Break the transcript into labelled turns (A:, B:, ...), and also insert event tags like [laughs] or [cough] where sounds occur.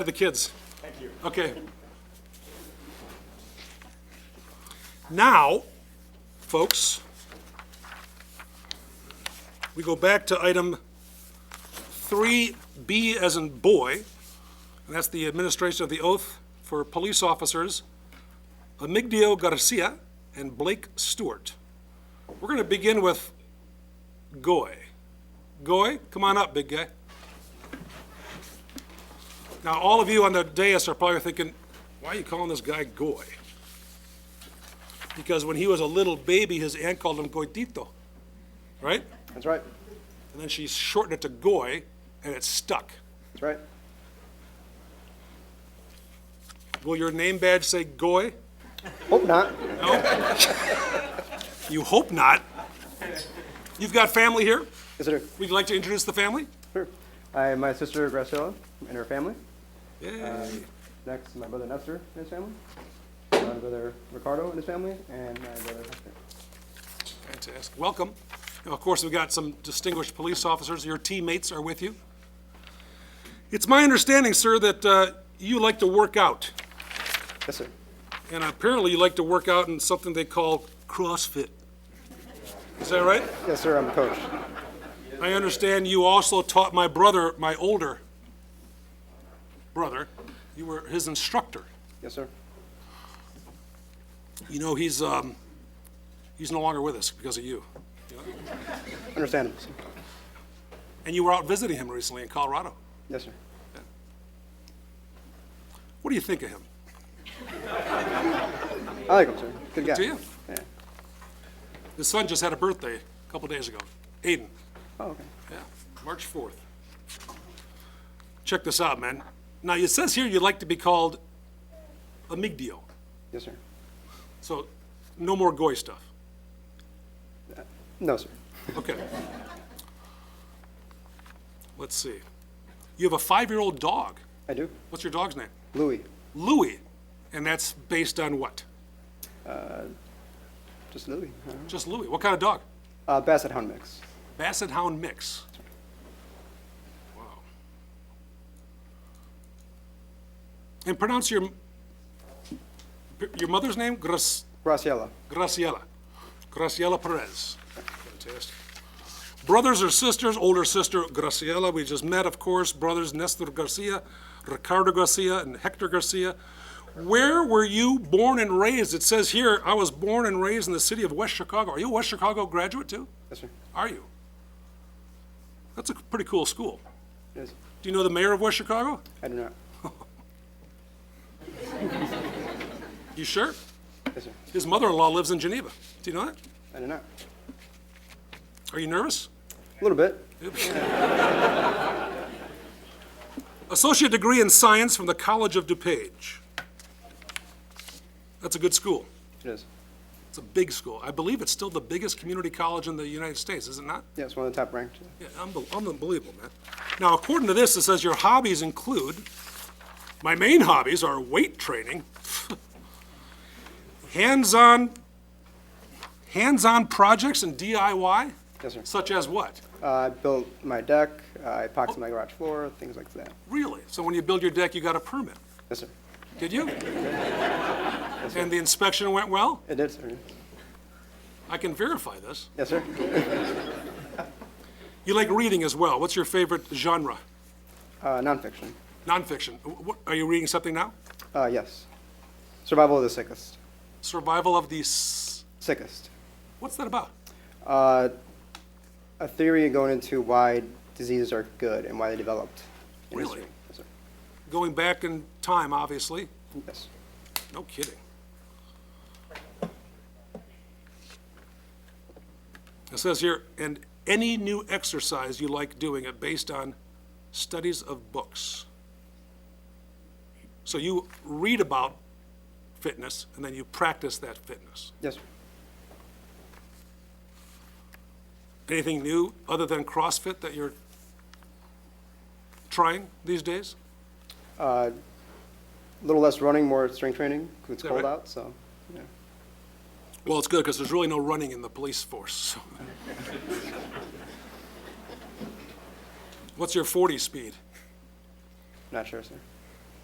A: to the kids. Thank you. Okay. Now, folks, we go back to item 3B as in boy, and that's the administration of the oath for police officers Amigdio Garcia and Blake Stewart. We're going to begin with Goy. Goy, come on up, big guy. Now, all of you on the dais are probably thinking, why are you calling this guy Goy? Because when he was a little baby, his aunt called him Goitito, right?
B: That's right.
A: And then she shortened it to Goy, and it stuck.
B: That's right.
A: Will your name badge say Goy?
B: Hope not.
A: No? You hope not. You've got family here?
B: Yes, sir.
A: Would you like to introduce the family?
B: Sure. I am my sister Graciela and her family.
A: Yeah.
B: Next, my brother Nestor and his family. My brother Ricardo and his family, and my brother Hector.
A: Fantastic. Welcome. Now, of course, we've got some distinguished police officers. Your teammates are with you. It's my understanding, sir, that uh, you like to work out,
B: Yes, sir.
A: and apparently you like to work out in something they call CrossFit. Is that right?
B: Yes, sir. I'm a coach.
A: I understand you also taught my brother, my older brother, you were his instructor.
B: Yes, sir.
A: You know, he's, um, he's no longer with us because of you.
B: Understandable. sir.
A: And you were out visiting him recently in Colorado.
B: Yes, sir.
A: What do you think of him?
B: I like him, sir. Good guy.
A: Do you?
B: Yeah.
A: His son just had a birthday a couple days ago, Aiden.
B: Oh, okay.
A: Yeah, March 4th. Check this out, man. Now, it says here you'd like to be called Amigdio.
B: Yes, sir.
A: So, no more goy stuff.
B: No, sir.
A: Okay. Let's see. You have a five-year-old dog.
B: I do.
A: What's your dog's name?
B: Louis.
A: Louie. And that's based on what?
B: Just Louis. I don't know.
A: Just Louie. What kind of dog?
B: Uh, Basset Hound mix.
A: Basset Hound mix. Wow. And pronounce your, your mother's name, Gras,
B: Graciela.
A: Graciela. Graciela Perez. Fantastic. Brothers or sisters, older sister Graciela, we just met, of course, brothers Nestor Garcia, Ricardo Garcia, and Hector Garcia. Where were you born and raised? It says here, I was born and raised in the city of West Chicago. Are you a West Chicago graduate too?
B: Yes, sir.
A: Are you? That's a pretty cool school.
B: Yes.
A: Do you know the mayor of West Chicago?
B: I do not.
A: You sure?
B: Yes, sir.
A: His mother-in-law lives in Geneva. Do you know that?
B: I do not.
A: Are you nervous?
B: A little bit.
A: Associate degree in science from the College of DuPage. That's a good school.
B: It is.
A: It's a big school. I believe it's still the biggest community college in the United States, is it not?
B: Yeah, it's one of the top ranked.
A: Yeah, unbe- unbelievable, man. Now, according to this, it says your hobbies include, my main hobbies are weight training, [laughs] hands-on, hands-on projects and DIY,
B: Yes, sir.
A: such as what?
B: Uh, I built my deck. uh, I epoxied my garage floor. Things like that.
A: Really? So when you build your deck, you got a permit,
B: Yes, sir.
A: did you? And the inspection went well?
B: It did, sir.
A: I can verify this.
B: Yes, [laughs] sir.
A: You like reading as well. What's your favorite genre?
B: Uh, nonfiction.
A: Nonfiction. Wh- wh- Are you reading something now?
B: Uh, yes. Survival of the sickest.
A: Survival of the, s-
B: Sickest.
A: what's that about?
B: Uh, a theory going into why diseases are good and why they developed. in
A: Really?
B: history. Yes, sir.
A: Going back in time, obviously.
B: Yes.
A: No kidding. It says here, and any new exercise you like doing it based on studies of books. So you read about fitness and then you practice that fitness.
B: Yes, sir.
A: Anything new other than CrossFit that you're trying these days?
B: A little less running, more strength training. 'cause It's
A: that
B: cold
A: right?
B: out, so. Yeah.
A: Well, it's good because there's really no running in the police force. so. [laughs] What's your 40 speed?
B: Not sure, sir.